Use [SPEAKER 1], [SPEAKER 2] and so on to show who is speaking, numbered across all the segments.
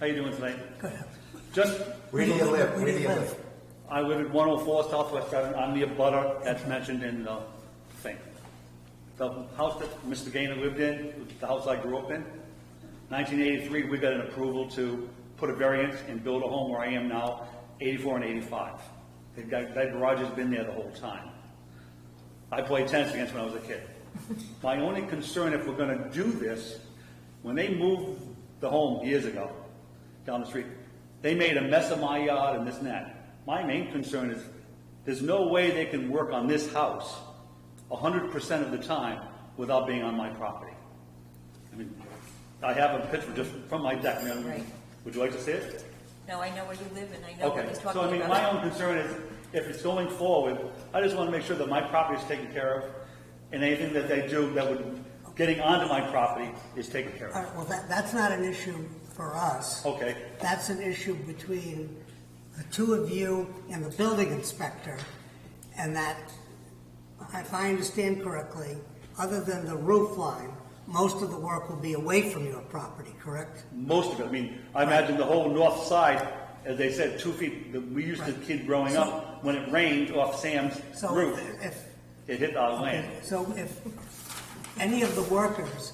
[SPEAKER 1] How you doing tonight? Just,
[SPEAKER 2] Where do you live? Where do you live?
[SPEAKER 1] I live at 104 Southwest Avenue, I'm the abutter that's mentioned in the thing. The house that Mr. Gaynor lived in, the house I grew up in, 1983, we got an approval to put a variance and build a home where I am now, 84 and 85. They've got- That garage has been there the whole time. I played tennis against when I was a kid. My only concern, if we're gonna do this, when they moved the home years ago, down the street, they made a mess of my yard and this and that. My main concern is, there's no way they can work on this house hundred percent of the time without being on my property. I mean, I have a picture just from my deck, ma'am.
[SPEAKER 3] Right.
[SPEAKER 1] Would you like to see it?
[SPEAKER 3] No, I know where you live and I know what
[SPEAKER 1] Okay,
[SPEAKER 3] he's
[SPEAKER 1] so I
[SPEAKER 3] talking
[SPEAKER 1] mean, my
[SPEAKER 3] about.
[SPEAKER 1] own concern is, if it's going forward, I just want to make sure that my property is taken care of, and anything that they do that would, getting onto my property is taken care
[SPEAKER 4] All
[SPEAKER 1] of.
[SPEAKER 4] right, well, that, that's not an issue for us.
[SPEAKER 1] Okay,
[SPEAKER 4] That's an issue between the two of you and the building inspector. And that, if I understand correctly, other than the roof line, most of the work will be away from your property, correct?
[SPEAKER 1] most of it, I mean, I imagine the whole north side, as they said, two feet, that we used to,
[SPEAKER 4] Right.
[SPEAKER 1] kid growing up, when it rained off Sam's
[SPEAKER 4] So
[SPEAKER 1] roof,
[SPEAKER 4] if,
[SPEAKER 1] it hit our land.
[SPEAKER 4] so if any of the workers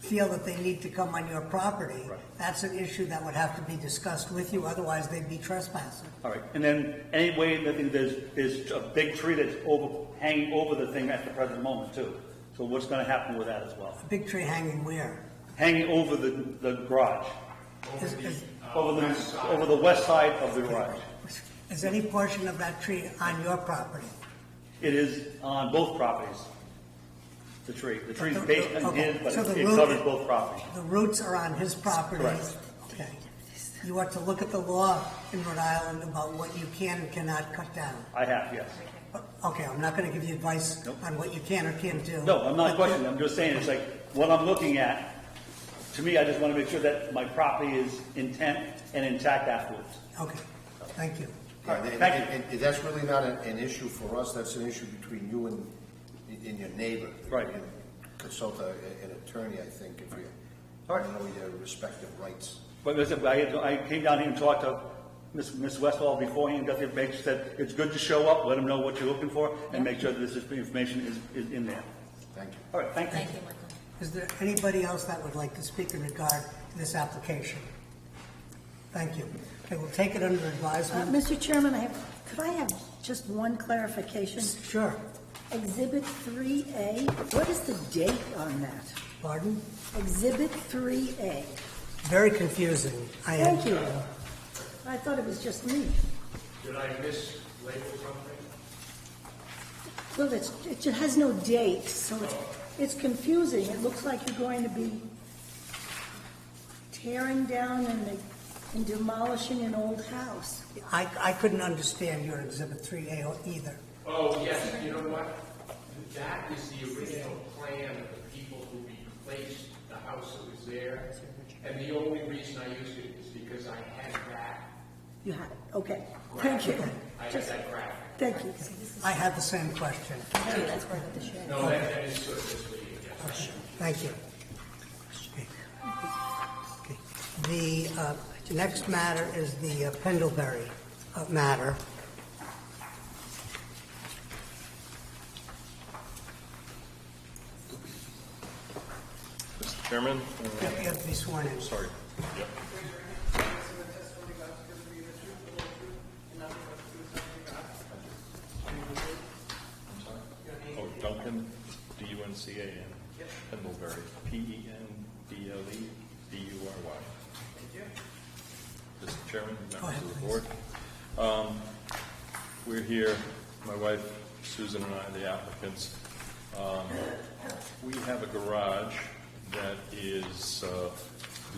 [SPEAKER 4] feel that they need to come on your property,
[SPEAKER 1] Right.
[SPEAKER 4] that's an issue that would have to be discussed with you, otherwise they'd be trespassing.
[SPEAKER 1] All right, and then any way that there's, there's a big tree that's over, hanging over the thing at the present moment too. So what's going to happen with that as well?
[SPEAKER 4] Big tree hanging where?
[SPEAKER 1] Hanging over the, the garage,
[SPEAKER 4] Is- is-
[SPEAKER 1] over the, over the west side of the garage.
[SPEAKER 4] Is any portion of that tree on your property?
[SPEAKER 1] It is on both properties, the tree. The tree's based on
[SPEAKER 4] Okay,
[SPEAKER 1] his, but
[SPEAKER 4] so the
[SPEAKER 1] it
[SPEAKER 4] root-
[SPEAKER 1] covers both properties.
[SPEAKER 4] The roots are on his property?
[SPEAKER 1] Correct.
[SPEAKER 4] Okay. You are to look at the law in Rhode Island about what you can and cannot cut down.
[SPEAKER 1] I have, yes.
[SPEAKER 4] Okay, I'm not gonna give you advice
[SPEAKER 1] Nope.
[SPEAKER 4] on what you can or can't do.
[SPEAKER 1] No, I'm not
[SPEAKER 4] But
[SPEAKER 1] questioning, I'm just saying, it's like, what I'm looking at, to me, I just want to make sure that my property is intent and intact afterwards.
[SPEAKER 4] you- Okay, thank you.
[SPEAKER 2] Yeah, And,
[SPEAKER 1] Thank you.
[SPEAKER 2] and- and that's really not an, an issue for us, that's an issue between you and, and your neighbor.
[SPEAKER 1] Right.
[SPEAKER 2] You Consult a- an attorney, I think, if you,
[SPEAKER 1] All
[SPEAKER 2] I
[SPEAKER 1] right.
[SPEAKER 2] know your respective rights.
[SPEAKER 1] But listen, I, I came down here and talked to Miss Miss Westall beforehand, got the information, said, it's good to show up, let them know what you're looking for, and make sure that this is- information is, is in there.
[SPEAKER 2] Thank you.
[SPEAKER 1] All right, thank you.
[SPEAKER 3] Thank you, Michael.
[SPEAKER 4] Is there anybody else that would like to speak in regard to this application? Thank you. Okay, we'll take it under
[SPEAKER 5] Uh,
[SPEAKER 4] advisement.
[SPEAKER 5] Mr. Chairman, I have, could I have just one clarification?
[SPEAKER 4] Sure,
[SPEAKER 5] Exhibit 3A, what is the date on that?
[SPEAKER 4] pardon?
[SPEAKER 5] Exhibit 3A.
[SPEAKER 4] Very confusing. I am-
[SPEAKER 5] Thank you. I thought it was just me.
[SPEAKER 6] Did I mislabel something?
[SPEAKER 5] Well, it's, it ju- has no date, so it's, it's confusing. It looks like you're going to be tearing down and and demolishing an old house.
[SPEAKER 4] I, I couldn't understand your Exhibit 3A or either.
[SPEAKER 6] Oh, yes, you know what? That is the original plan of the people who replaced the house that was there. And the only reason I used it is because I had that,
[SPEAKER 5] You had it, okay. Thank you.
[SPEAKER 6] I had
[SPEAKER 5] Just-
[SPEAKER 6] that graphic.
[SPEAKER 5] Thank you.
[SPEAKER 4] I had the same question.
[SPEAKER 3] That's where the shed.
[SPEAKER 6] No, that that is sort of misleading, yes.
[SPEAKER 4] Thank you. Okay. Okay. The uh, next matter is the uh, Pendlebury uh, matter.
[SPEAKER 7] Mr. Chairman,
[SPEAKER 4] You have to be sworn in.
[SPEAKER 7] sorry. Oh, Duncan, D-U-N-C-A-N. Pendlebury, E P-E-N-D-L-E-B-U-R-Y. Mr. Chairman, members of the board. Um, We're here, my wife Susan and I, the applicants. Um, We have a garage that is uh,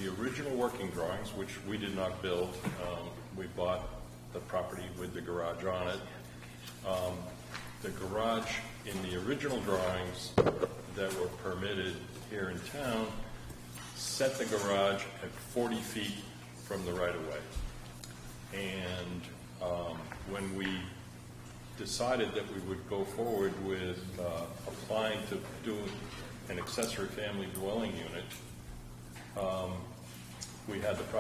[SPEAKER 7] the original working drawings, which we did not build. Um, We bought the property with the garage on it. Um, The garage in the original drawings that were permitted here in town set the garage at 40 feet from the right-of-way. And um, when we decided that we would go forward with uh, applying to do an accessory family dwelling unit, um, we had the